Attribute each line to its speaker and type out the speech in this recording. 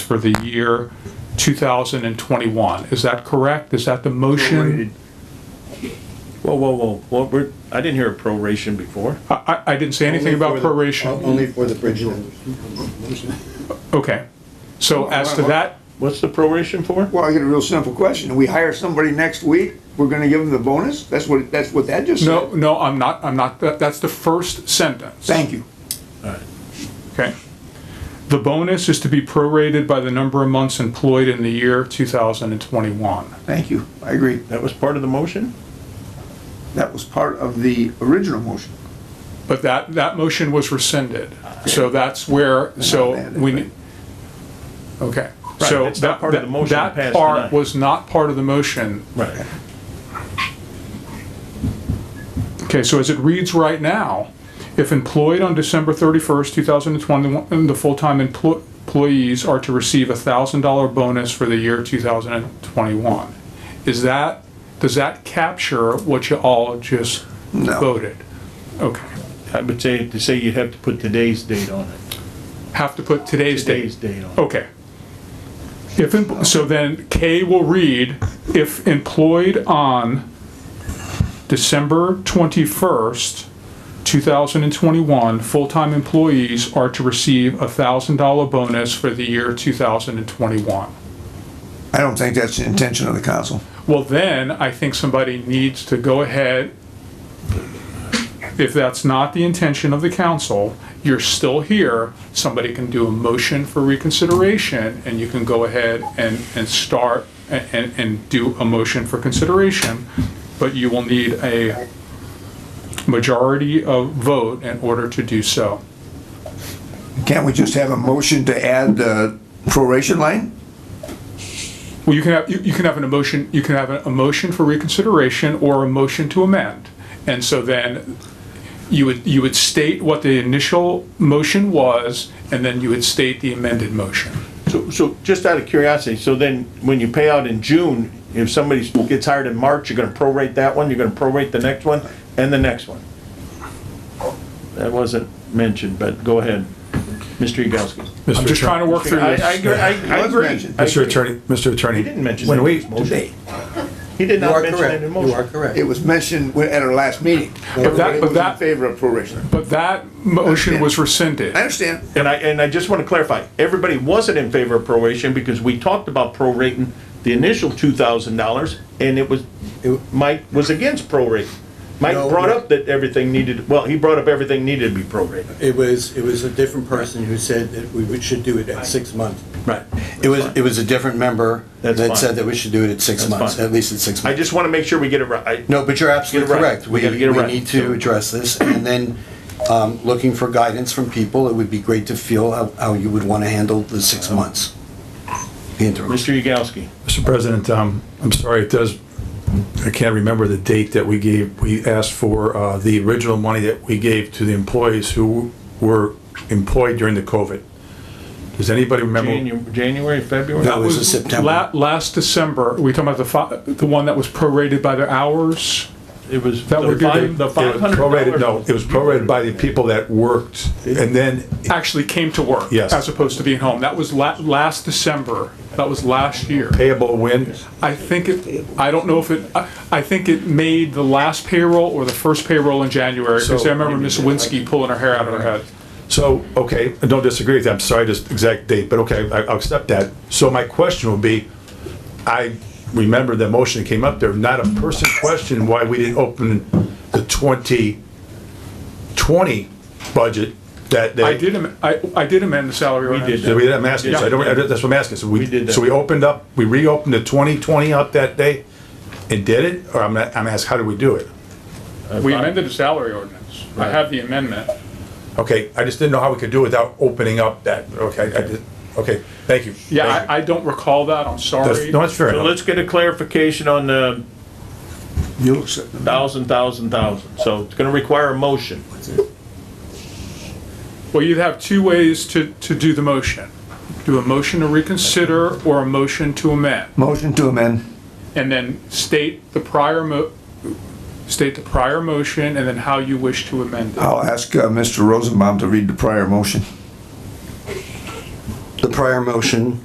Speaker 1: for the year 2021. Is that correct? Is that the motion?
Speaker 2: Whoa, whoa, whoa, what, we're, I didn't hear a proration before.
Speaker 1: I, I- I didn't say anything about proration.
Speaker 3: Only for the bridge loan.
Speaker 1: Okay. So as to that,
Speaker 2: What's the proration for?
Speaker 3: Well, I get a real simple question. We hire somebody next week, we're gonna give them the bonus? That's what, that's what that just said?
Speaker 1: no, no, I'm not, I'm not, that- that's the first sentence.
Speaker 3: Thank you.
Speaker 1: Okay. The bonus is to be prorated by the number of months employed in the year 2021.
Speaker 3: Thank you. I agree.
Speaker 2: That was part of the motion?
Speaker 3: That was part of the original motion.
Speaker 1: But that, that motion was rescinded. So that's where, so
Speaker 3: mad at
Speaker 1: we,
Speaker 3: it.
Speaker 1: ne- okay.
Speaker 2: Right,
Speaker 1: So
Speaker 2: it's not
Speaker 1: that-
Speaker 2: part of the
Speaker 1: that-
Speaker 2: motion
Speaker 1: That
Speaker 2: passed
Speaker 1: part
Speaker 2: tonight.
Speaker 1: was not part of the motion.
Speaker 2: Right.
Speaker 1: Okay, so as it reads right now, if employed on December 31st, 2021, the full-time emplo- employees are to receive a $1,000 bonus for the year 2021. Is that, does that capture what you all just
Speaker 3: No.
Speaker 1: voted? Okay.
Speaker 2: I would say, to say you'd have to put today's date on it.
Speaker 1: Have to put today's date.
Speaker 2: Today's Oh, date on it.
Speaker 1: Okay. If, em- so then K will read, if employed on December 21st, 2021, full-time employees are to receive a $1,000 bonus for the year 2021.
Speaker 3: I don't think that's the intention of the council.
Speaker 1: Well, then, I think somebody needs to go ahead, if that's not the intention of the council, you're still here, somebody can do a motion for reconsideration, and you can go ahead and, and start, a- and, and do a motion for consideration, but you will need a majority of vote in order to do so.
Speaker 3: Can't we just have a motion to add the proration line?
Speaker 1: Well, you can have, you, you can have an emotion, you can have a, a motion for reconsideration or a motion to amend. And so then you would, you would state what the initial motion was, and then you would state the amended motion.
Speaker 2: So, so just out of curiosity, so then when you pay out in June, if somebody gets hired in March, you're gonna prorate that one, you're gonna prorate the next one, and the next one? That wasn't mentioned, but go ahead, Mr. Yagowski.
Speaker 1: I'm just trying to work through
Speaker 2: I, I,
Speaker 1: this.
Speaker 2: agree- I I
Speaker 3: It was
Speaker 2: agree.
Speaker 3: mentioned.
Speaker 2: I
Speaker 4: Mr.
Speaker 2: agree.
Speaker 4: Attorney, Mr. Attorney.
Speaker 2: He didn't mention
Speaker 4: When
Speaker 2: that
Speaker 4: we,
Speaker 2: in his motion. He did not mention it in the motion.
Speaker 5: correct.
Speaker 3: It was mentioned at our last meeting.
Speaker 1: But that-
Speaker 3: Everybody
Speaker 1: but
Speaker 3: was
Speaker 1: that-
Speaker 3: in favor of proration.
Speaker 1: But that motion was rescinded.
Speaker 3: I understand.
Speaker 2: And I, and I just want to clarify, everybody wasn't in favor of proration because we talked about prorating the initial two thousand dollars and it was, Mike was against prorating. Mike
Speaker 5: No.
Speaker 2: brought up that everything needed, well, he brought up everything needed to be prorated.
Speaker 5: It was, it was a different person who said that we would- should do it at six months.
Speaker 2: Right.
Speaker 5: It was, it was a different member
Speaker 2: That's
Speaker 5: that
Speaker 2: fine.
Speaker 5: said that we should do it at six
Speaker 2: That's
Speaker 5: months,
Speaker 2: fine.
Speaker 5: at least at six
Speaker 2: I
Speaker 5: months.
Speaker 2: just want to make sure we get it right.
Speaker 5: No, but you're absolutely
Speaker 2: Get it right.
Speaker 5: correct.
Speaker 2: We gotta get it right.
Speaker 5: We need to address this, and then, um, looking for guidance from people, it would be great to feel how, how you would want to handle the six months. The interim.
Speaker 2: Mr. Yagowski,
Speaker 4: Mr. President, um, I'm sorry, it does, I can't remember the date that we gave, we asked for, uh, the original money that we gave to the employees who were employed during the COVID. Does anybody remember?
Speaker 2: Janu- January, February?
Speaker 5: No. It was in September.
Speaker 1: La- Last December, we talking about the fi, the one that was prorated by the hours?
Speaker 2: It was
Speaker 1: That
Speaker 2: the
Speaker 1: would be the-
Speaker 2: five, the
Speaker 4: It was
Speaker 2: five hundred
Speaker 4: prorated-
Speaker 2: dollars.
Speaker 4: No, it was prorated by the people that worked, and then,
Speaker 1: Actually came to work.
Speaker 4: Yes.
Speaker 1: As opposed to being home. That was la, last December. That was last year.
Speaker 4: payable when,
Speaker 1: I think it, I don't know if it, I I think it made the last payroll or the first payroll in January, because I remember Ms. Winsky pulling her hair out of her head.
Speaker 4: So, okay, I don't disagree with that, I'm sorry, just exact date, but okay, I- I'll accept that. So my question would be, I remember the motion that came up there, not a person questioned why we didn't open the 2020 budget that
Speaker 1: I
Speaker 4: they.
Speaker 1: did, am- I, I did amend the salary ordinance.
Speaker 2: did.
Speaker 4: So we didn't ask, so I don't, I don't- that's what I'm asking, so we.
Speaker 2: We did that.
Speaker 4: So we opened up, we reopened the 2020 up that day and did it, or I'm, not- I'm asking, how did we do it?
Speaker 1: We amended the salary ordinance. I have the amendment.
Speaker 4: Okay, I just didn't know how we could do it without opening up that, okay, I did, okay, thank you.
Speaker 1: Yeah,
Speaker 4: Thank you.
Speaker 1: I, I don't recall that, I'm
Speaker 4: That's-
Speaker 1: sorry.
Speaker 4: No, that's fair
Speaker 2: So
Speaker 4: enough.
Speaker 2: let's get a clarification on the
Speaker 3: You'll accept them.
Speaker 2: thousand, thousand, thousand. So it's going to require a motion.
Speaker 1: Well, you'd have two ways to, to do the motion. Do a motion to reconsider or a motion to amend,
Speaker 3: Motion to amend.
Speaker 1: and then state the prior mo, state the prior motion and then how you wish to amend it.
Speaker 3: I'll ask uh, Mr. Rosenbaum to read the prior motion.
Speaker 5: The prior motion